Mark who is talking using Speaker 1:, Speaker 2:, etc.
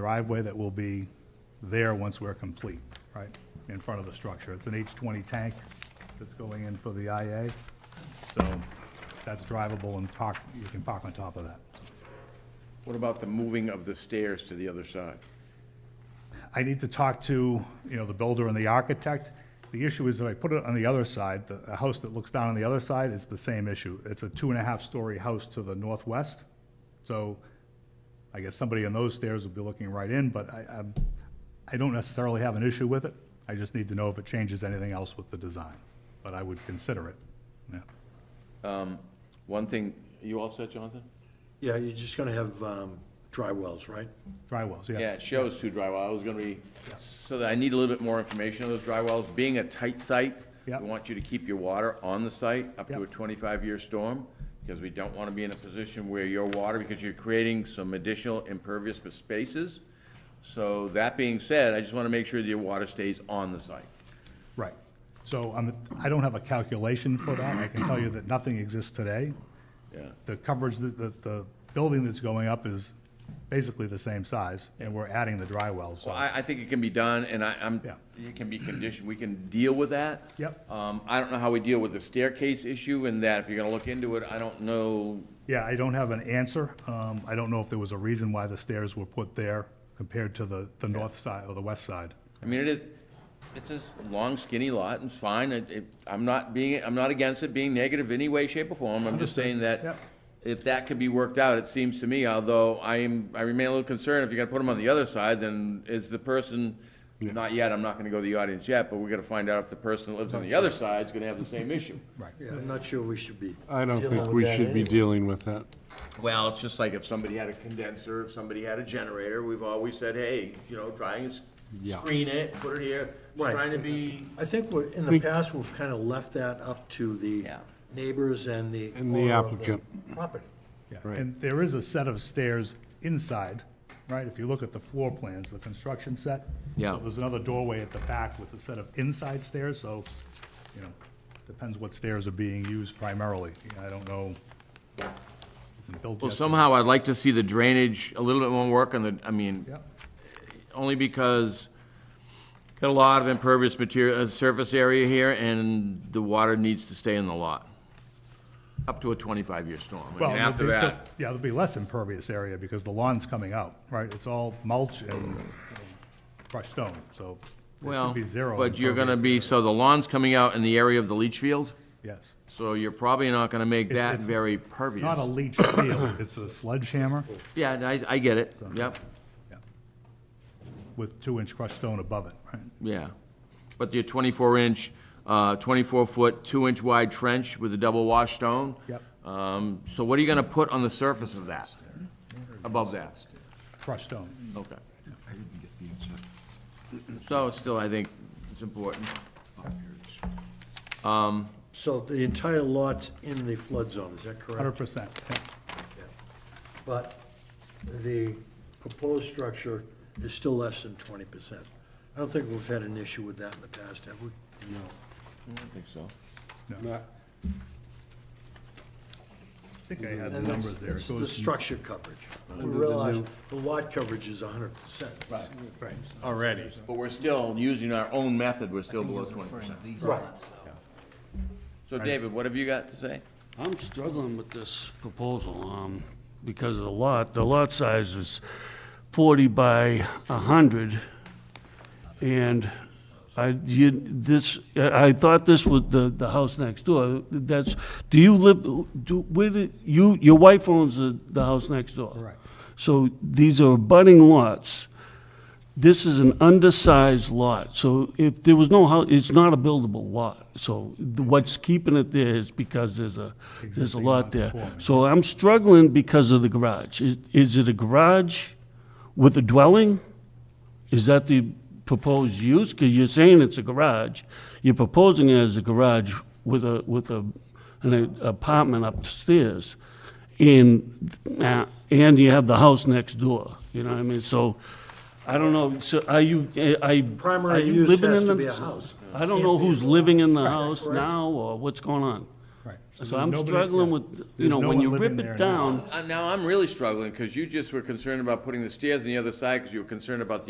Speaker 1: driveway that will be there once we're complete, right, in front of the structure. It's an H20 tank that's going in for the IA, so that's drivable and park, you can park on top of that.
Speaker 2: What about the moving of the stairs to the other side?
Speaker 1: I need to talk to, you know, the builder and the architect. The issue is if I put it on the other side, the, the house that looks down on the other side is the same issue. It's a two and a half story house to the northwest. So I guess somebody on those stairs would be looking right in, but I, I'm, I don't necessarily have an issue with it. I just need to know if it changes anything else with the design, but I would consider it, yeah.
Speaker 2: One thing, you all set, Jonathan?
Speaker 3: Yeah, you're just gonna have um, dry wells, right?
Speaker 1: Dry wells,
Speaker 2: Yeah,
Speaker 1: yeah.
Speaker 2: it shows two dry wells. I was gonna be, so that I need a little bit more information on those dry wells. Being a tight site, we
Speaker 1: Yeah.
Speaker 2: want you to keep your water on the site up to a
Speaker 1: Yeah.
Speaker 2: twenty-five year storm, because we don't wanna be in a position where your water, because you're creating some additional impervious spaces. So that being said, I just wanna make sure that your water stays on the site.
Speaker 1: Right. So I'm, I don't have a calculation for that. I can tell you that nothing exists today.
Speaker 2: Yeah.
Speaker 1: the coverage, that the, the building that's going up is basically the same size, and we're adding the dry well,
Speaker 2: Well,
Speaker 1: so.
Speaker 2: I, I think it can be done, and I, I'm,
Speaker 1: Yeah.
Speaker 2: it can be conditioned, we can deal with that.
Speaker 1: Yep.
Speaker 2: Um, I don't know how we deal with the staircase issue and that, if you're gonna look into it, I don't know,
Speaker 1: Yeah, I don't have an answer. Um, I don't know if there was a reason why the stairs were put there compared to the, the north side or the west side.
Speaker 2: I mean, it is, it's a long skinny lot, and it's fine, it, it, I'm not being, I'm not against it being negative any way, shape, or form, I'm just saying that
Speaker 1: Yep.
Speaker 2: if that could be worked out, it seems to me, although I am, I remain a little concerned, if you're gonna put them on the other side, then is the person, not yet, I'm not gonna go to the audience yet, but we're gonna find out if the person that lives on the other side's gonna have the same issue.
Speaker 1: Right.
Speaker 3: Yeah, I'm not sure we should be.
Speaker 4: I don't
Speaker 3: dealing
Speaker 4: think
Speaker 3: with
Speaker 4: we
Speaker 3: that
Speaker 4: should be
Speaker 3: anyway.
Speaker 4: dealing with that.
Speaker 2: Well, it's just like if somebody had a condenser, if somebody had a generator, we've always said, hey, you know, try and s-
Speaker 4: Yeah.
Speaker 2: screen it, put it here, It's
Speaker 3: Right.
Speaker 2: trying to be,
Speaker 3: I think we're, in the past, we've kind of left that up to the
Speaker 2: Yeah.
Speaker 3: neighbors and the.
Speaker 4: And the
Speaker 3: owner of
Speaker 4: applicant.
Speaker 3: Property.
Speaker 1: Yeah.
Speaker 4: Right.
Speaker 1: And there is a set of stairs inside, right? If you look at the floor plans, the construction set.
Speaker 2: Yeah.
Speaker 1: So There's another doorway at the back with a set of inside stairs, so, you know, depends what stairs are being used primarily. I don't know. Isn't built
Speaker 2: well,
Speaker 1: yet, so-
Speaker 2: somehow I'd like to see the drainage, a little bit more work on the, I mean,
Speaker 1: Yeah.
Speaker 2: only because got a lot of impervious material, uh, surface area here, and the water needs to stay in the lot. Up to a twenty-five year storm, I
Speaker 1: Well,
Speaker 2: mean,
Speaker 1: there'll
Speaker 2: after
Speaker 1: be-
Speaker 2: that.
Speaker 1: there'll- Yeah, there'll be less impervious area because the lawn's coming out, right? It's all mulch and you know, crushed stone, so there
Speaker 2: Well,
Speaker 1: should be zero.
Speaker 2: but you're gonna be,
Speaker 1: impervious
Speaker 2: so the lawn's coming out in the area of the leach field,
Speaker 1: area. Yes.
Speaker 2: so you're probably not gonna make
Speaker 1: It's-
Speaker 2: that
Speaker 1: it's
Speaker 2: very pervious.
Speaker 1: Not a leach field, it's a sledgehammer
Speaker 2: Yeah, and I, I get it, yep,
Speaker 1: with two-inch crushed stone above it, right?
Speaker 2: yeah. But your twenty-four inch, uh, twenty-four foot, two inch wide trench with a double wash stone?
Speaker 1: Yep.
Speaker 2: Um, so what are you gonna put on the surface of that? Above that?
Speaker 1: Crushed stone.
Speaker 2: Okay. So it's still, I think, it's important.
Speaker 3: So the entire lot's in the flood zone, is that correct?
Speaker 1: Hundred percent,
Speaker 3: Yeah. But the proposed structure is still less than twenty percent. I don't think we've had an issue with that in the past, have we?
Speaker 2: I don't think so.
Speaker 1: I think I had the
Speaker 3: And that's-
Speaker 1: numbers there. It
Speaker 3: it's the
Speaker 1: goes-
Speaker 3: structure coverage. We realize the lot coverage is hundred percent. Right.
Speaker 1: Right.
Speaker 2: Already. But we're still, using our own method, we're still below twenty percent. So David, what have you got to say?
Speaker 5: I'm struggling with this proposal, um, because of the lot, the lot size is forty by a hundred. And I, you, this, I I thought this was the, the house next door, that's, do you live, do, where did, you, your wife owns the, the house next door?
Speaker 1: Correct.
Speaker 5: So these are budding lots. This is an undersized lot, so if there was no house, it's not a buildable lot. So the- what's keeping it there is because there's a, there's a
Speaker 1: Existing
Speaker 5: lot there.
Speaker 1: non-conforming.
Speaker 5: So I'm struggling because of the garage. Is- Is it a garage with a dwelling? Is that the proposed use? Because you're saying it's a garage. You're proposing it as a garage with a, with a, an apartment upstairs. And, uh, and you have the house next door, you know what I mean? So, I don't know, so are you, uh, I.
Speaker 3: Primary use has to be a house.
Speaker 5: I don't know who's living in the house now or what's going on.
Speaker 1: Right.
Speaker 5: So I'm
Speaker 1: nobody-
Speaker 5: struggling
Speaker 1: yeah.
Speaker 5: with, you
Speaker 1: There's
Speaker 5: know,
Speaker 1: no
Speaker 5: when
Speaker 1: one
Speaker 5: you
Speaker 1: living
Speaker 5: rip
Speaker 1: there
Speaker 5: it
Speaker 1: now.
Speaker 5: down,
Speaker 2: Uh, Now, I'm really struggling, because you just were concerned about putting the stairs on the other side, because you were concerned about the